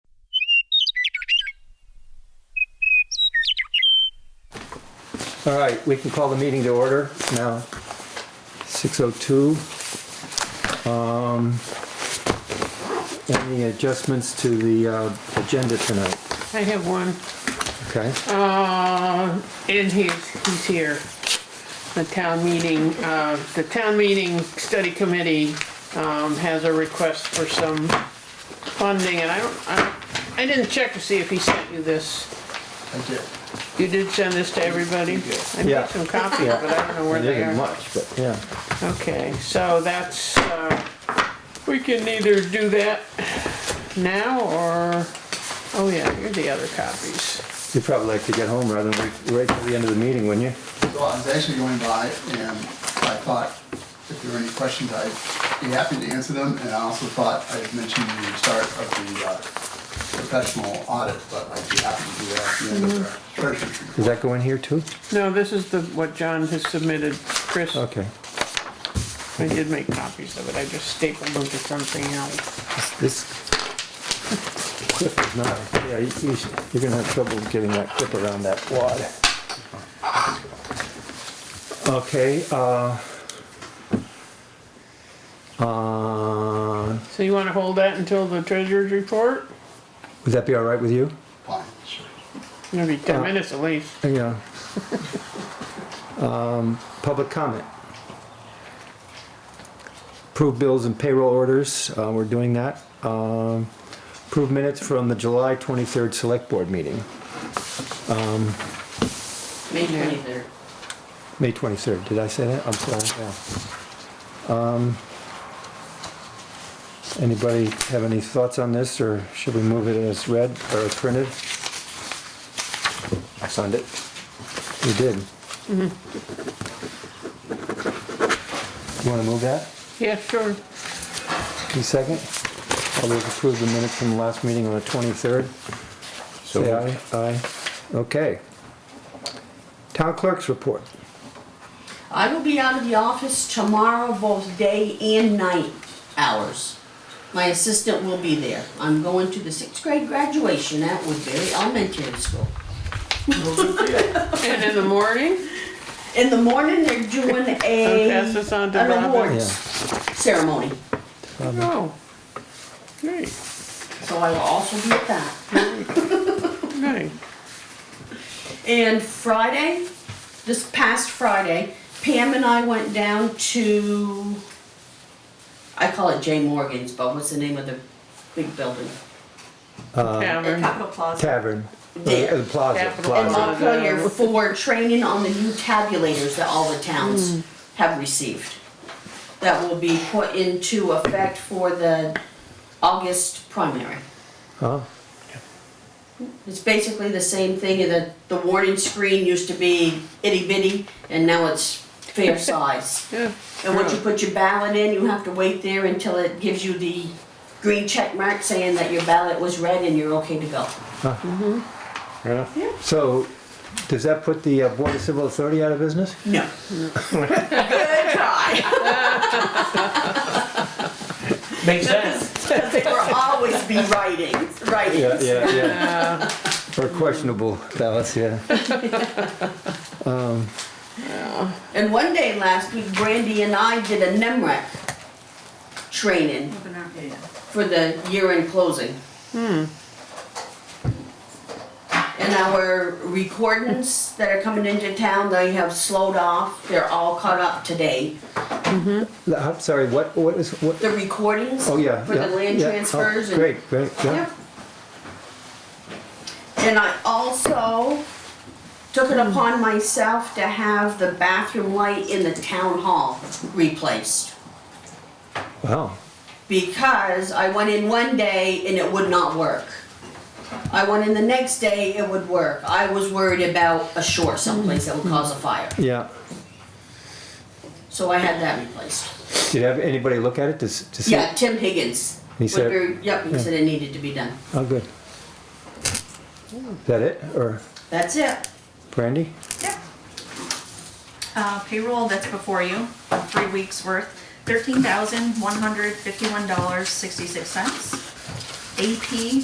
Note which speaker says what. Speaker 1: All right, we can call the meeting to order now. 6:02. Um, Any adjustments to the uh, agenda tonight?
Speaker 2: I have one,
Speaker 1: Okay,
Speaker 2: uh, and he's, he's here. The town meeting, uh, the town meeting study committee, um, has a request for some funding, and I don't, I, I didn't check to see if he sent you this.
Speaker 3: I did.
Speaker 2: You did send this to everybody? I
Speaker 1: Yeah.
Speaker 2: made some copies,
Speaker 1: Yeah.
Speaker 2: but I don't know where
Speaker 1: it
Speaker 2: they
Speaker 1: isn't
Speaker 2: are.
Speaker 1: much, but yeah.
Speaker 2: Okay, so that's, uh, we can either do that now, or, oh yeah, here are the other copies.
Speaker 1: You'd probably like to get home rather than wait right till the end of the meeting, wouldn't you?
Speaker 3: Well, I was actually going by and I thought if there were any questions, I'd be happy to answer them. And I also thought I had mentioned the start of the uh, professional audit, but I'd be happy to do that at the end of the treasurer's report.
Speaker 1: Does that go in here too?
Speaker 2: No, this is the, what John has submitted. Chris, I
Speaker 1: Okay.
Speaker 2: did make copies of it, I just stapled them to something else.
Speaker 1: This clip is not, yeah, you- you should- you're gonna have trouble getting that clip around that wad. Okay, uh. Uh,
Speaker 2: So you wanna hold that until the treasurer's report?
Speaker 1: would that be all right with you?
Speaker 3: Fine, sure.
Speaker 2: Maybe ten
Speaker 1: Uh,
Speaker 2: minutes at least.
Speaker 1: Yeah. Um, public comment. Approve bills and payroll orders, uh, we're doing that. Um, approve minutes from the July twenty-third select board meeting,
Speaker 4: May twenty-third.
Speaker 1: May twenty-third, did I say that? I'm sorry, yeah. Um, anybody have any thoughts on this, or should we move it as read or printed? I signed it. You did. You wanna move that?
Speaker 2: Yeah, sure.
Speaker 1: Any second? All those approve the minutes from the last meeting on the 23rd? Say aye. Aye. Okay. Town clerk's report.
Speaker 4: I will be out of the office tomorrow, both day and night hours. My assistant will be there. I'm going to the sixth grade graduation at Woodbury Elementary School.
Speaker 2: And in the morning,
Speaker 4: In the morning, they're doing
Speaker 2: I'll
Speaker 4: a,
Speaker 2: pass this on to
Speaker 4: an
Speaker 2: Robin.
Speaker 4: awards ceremony,
Speaker 2: Oh, great,
Speaker 4: so I will also be at that.
Speaker 2: great.
Speaker 4: And Friday, this past Friday, Pam and I went down to, I call it Jay Morgan's, but what's the name of the big building?
Speaker 2: Tavern.
Speaker 5: Capital Plaza.
Speaker 1: Tavern. Uh,
Speaker 4: There.
Speaker 1: the Plaza,
Speaker 2: Capital
Speaker 4: And
Speaker 1: plaza.
Speaker 2: Plaza.
Speaker 4: Montpelier for uh, training on the new tabulators that all the towns have received. That will be put into effect for the August primary.
Speaker 1: Huh?
Speaker 4: It's basically the same thing, the, the warning screen used to be itty bitty, and now it's fair size.
Speaker 2: Yeah.
Speaker 4: And once you put your ballot in, you have to wait there until it gives you the green check mark saying that your ballot was read and you're okay to go.
Speaker 1: Yeah. So, does that put the uh, Board of Civil Authority out of business?
Speaker 4: No. Good try.
Speaker 6: Makes sense.
Speaker 4: They will always be writing, writing.
Speaker 1: yeah, yeah. Or questionable ballots, yeah.
Speaker 4: And one day last week, Brandy and I did a NEMREC training for the year-end closing.
Speaker 1: Hmm.
Speaker 4: And our recordings that are coming into town, they have slowed off, they're all caught up today.
Speaker 1: I'm sorry, what, what is, what?
Speaker 4: The recordings
Speaker 1: Oh, yeah.
Speaker 4: for the
Speaker 1: yeah,
Speaker 4: land
Speaker 1: yeah. Oh,
Speaker 4: transfers and.
Speaker 1: Great, great, yeah.
Speaker 4: Yep. And I also took it upon myself to have the bathroom light in the town hall replaced.
Speaker 1: Wow.
Speaker 4: Because I went in one day and it would not work. I went in the next day, it would work. I was worried about a short someplace that would cause a fire,
Speaker 1: Yeah.
Speaker 4: so I had that replaced.
Speaker 1: Did you have anybody look at it to, s- to see?
Speaker 4: Yeah, Tim Higgins.
Speaker 1: He said-
Speaker 4: Woodbury- Yep, he said it needed to be done.
Speaker 1: Oh, good. Is that it, or
Speaker 4: That's it.
Speaker 1: Brandy?
Speaker 5: Yep. Uh, payroll that's before you, three weeks worth, thirteen thousand, one hundred fifty-one dollars, sixty-six cents. AP